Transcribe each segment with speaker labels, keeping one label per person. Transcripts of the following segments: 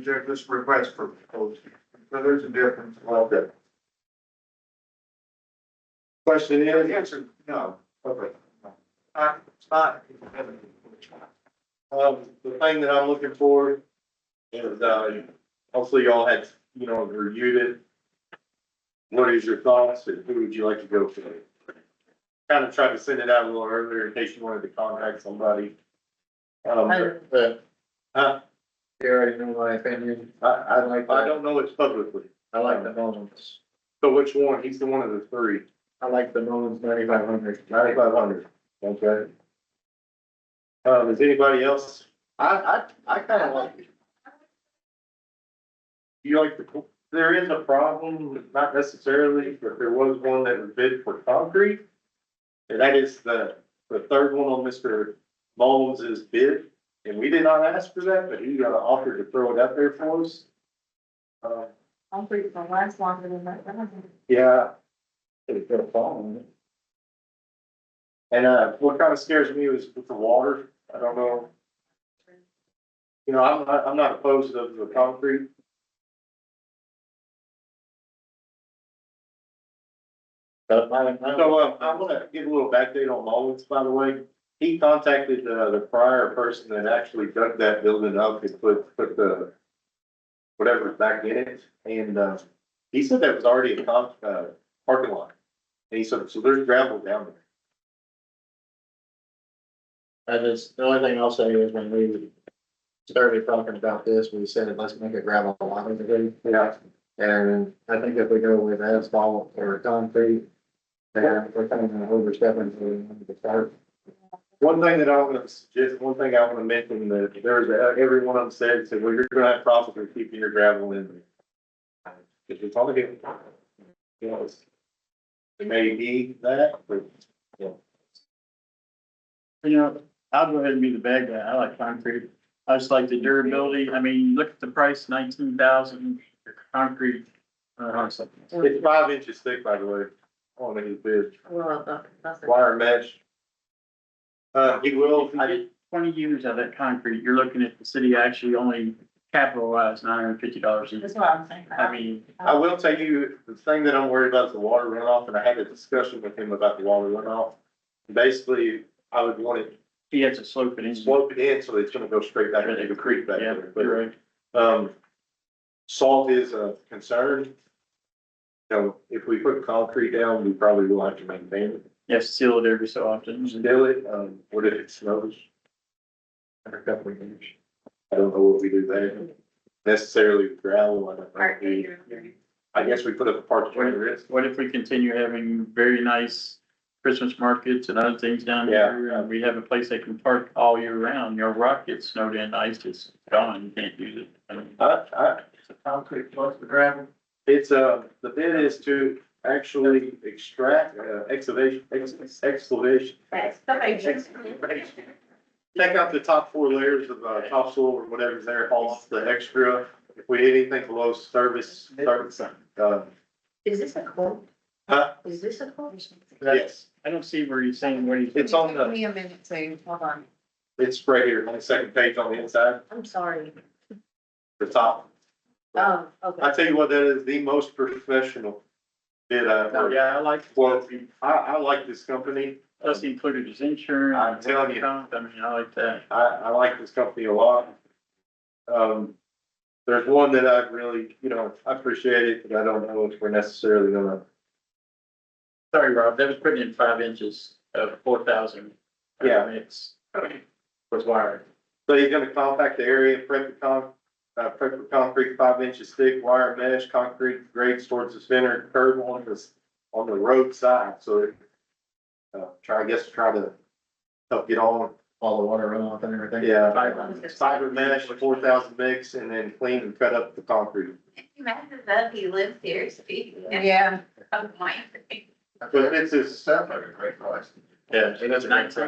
Speaker 1: Reject this request for proposal. So there's a difference like that. Question is? Answer, no. Okay. Uh, it's not.
Speaker 2: Um, the thing that I'm looking for is, uh, hopefully y'all had, you know, reviewed it. What is your thoughts and who would you like to go for? Kind of tried to send it out a little earlier in case you wanted to contact somebody. Um, but, uh,
Speaker 1: You already know my opinion.
Speaker 2: I, I
Speaker 1: like
Speaker 2: I don't know it's publicly.
Speaker 1: I like the Mullins.
Speaker 2: So which one? He's the one of the three.
Speaker 1: I like the Mullins ninety-five hundred.
Speaker 2: Ninety-five hundred. Okay. Um, is anybody else?
Speaker 1: I, I, I kinda like it.
Speaker 2: You like the, there is a problem, not necessarily, but there was one that was bid for concrete. And that is the, the third one on Mr. Mullins' bid, and we did not ask for that, but he got an offer to throw it out there for us. Uh,
Speaker 3: I'm pretty sure it lasts longer than that. I don't think-
Speaker 2: yeah,
Speaker 1: It's got a problem.
Speaker 2: and, uh, what kind of scares me was with the water, I don't know. You know, I'm, not- I'm not opposed to the concrete.
Speaker 1: But my, my,
Speaker 2: So, uh, I wanna give a little backdate on Mullins, by the way. He contacted, uh, the prior person that actually dug that building up and put, put the whatever back in it, and, uh, he said that was already a con, uh, parking lot. And he said, so there's gravel down there.
Speaker 1: I just, the only thing I'll say is when we started talking about this, we said, let's make a gravel lot of it.
Speaker 2: Yeah.
Speaker 1: And I think if we go with asphalt or concrete, then we're kind of overstepping to the end of the start.
Speaker 2: One thing that I want to suggest, one thing I want to mention that there was, a- every one of them said, said, well, you're gonna have problems with keeping your gravel in there. Cause it's all good. You know, it's- It may be that, but
Speaker 4: You know, I'll go ahead and be the bad guy. I like concrete. I just like the durability. I mean, you look at the price, nineteen thousand, your concrete. uh, honestly.
Speaker 2: It's five inches thick, by the way, on his bid,
Speaker 3: Well, that- that's it.
Speaker 2: wire mesh. Uh, he will,
Speaker 4: I did twenty years of that concrete. You're looking at the city actually only capitalized nine hundred and fifty dollars.
Speaker 3: That's what I'm saying.
Speaker 4: I mean,
Speaker 2: I will tell you, the thing that I'm worried about is the water runoff, and I had a discussion with him about the water runoff. Basically, I would want it
Speaker 4: he has a slope it in.
Speaker 2: sloped in, so it's gonna go straight back into the creek back
Speaker 4: Yeah,
Speaker 2: there,
Speaker 4: you're
Speaker 2: but,
Speaker 4: right.
Speaker 2: um, salt is a concern. So if we put concrete down, we probably will have to maintain it,
Speaker 4: You have to seal it every so often.
Speaker 2: still it, um, what if it snows?
Speaker 1: After a couple of years.
Speaker 2: I don't know what we do there necessarily with gravel. I don't know.
Speaker 3: Part
Speaker 2: We-
Speaker 3: two, three.
Speaker 2: I guess we put up a park where it is.
Speaker 4: What if we continue having very nice Christmas markets and other things down
Speaker 2: Yeah.
Speaker 4: here? And we have a place they can park all year round. Your rock gets snowed in, ice is gone. You can't use it. I mean,
Speaker 2: I, I,
Speaker 4: concrete plus the gravel.
Speaker 2: it's, uh, the bid is to actually extract, uh, excavation, ex- excavation.
Speaker 3: That's the matrix.
Speaker 2: Take out the top four layers of, uh, topsoil or whatever's there, haul off the extra. If we hit anything below service, service, uh,
Speaker 3: Is this a quote?
Speaker 2: Huh?
Speaker 3: Is this a quote?
Speaker 2: yes,
Speaker 4: I don't see where you're saying what he's.
Speaker 2: it's on the,
Speaker 3: me a minute, so, hold on,
Speaker 2: it's right here on the second page on the inside,
Speaker 3: I'm sorry.
Speaker 2: the top.
Speaker 3: Oh, okay.
Speaker 2: I tell you what, that is the most professional bid I've
Speaker 4: Oh,
Speaker 2: heard.
Speaker 4: Yeah, I like,
Speaker 2: Well, I, I like this company.
Speaker 4: plus he included his insurance.
Speaker 2: I'm telling you.
Speaker 4: I mean, I like that.
Speaker 2: I, I like this company a lot. Um, there's one that I really, you know, I appreciate it, but I don't know if we're necessarily gonna.
Speaker 4: Sorry, Rob, that was putting in five inches of four thousand.
Speaker 2: Yeah.
Speaker 4: Mix. Was wired.
Speaker 2: So he's gonna compact the area, prep the con, uh, prep the concrete five inches thick, wire mesh, concrete grades towards the center, curb on this, on the roadside, so. it, Uh, try, I guess, try to help get on,
Speaker 1: All the water runoff and everything.
Speaker 2: yeah.
Speaker 4: Fiber.
Speaker 2: Fiber mesh, four thousand mix, and then clean and cut up the concrete.
Speaker 5: Imagine that he lives here, speaking
Speaker 3: Yeah.
Speaker 5: of my.
Speaker 2: But it's just,
Speaker 1: Sounds like a great price.
Speaker 4: Yeah.
Speaker 1: It is a great price.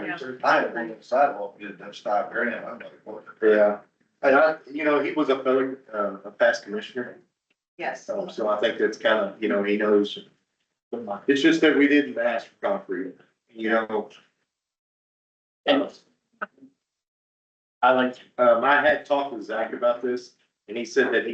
Speaker 1: I had one on the sidewalk, did that stop grant, I'm like, what?
Speaker 2: yeah, and I, you know, he was a fellow, uh, a past commissioner,
Speaker 5: Yes.
Speaker 2: so, so I think that's kind of, you know, he knows. It's just that we didn't ask for concrete, you know,
Speaker 4: And I like,
Speaker 2: um, I had talked with Zach about this, And he said that he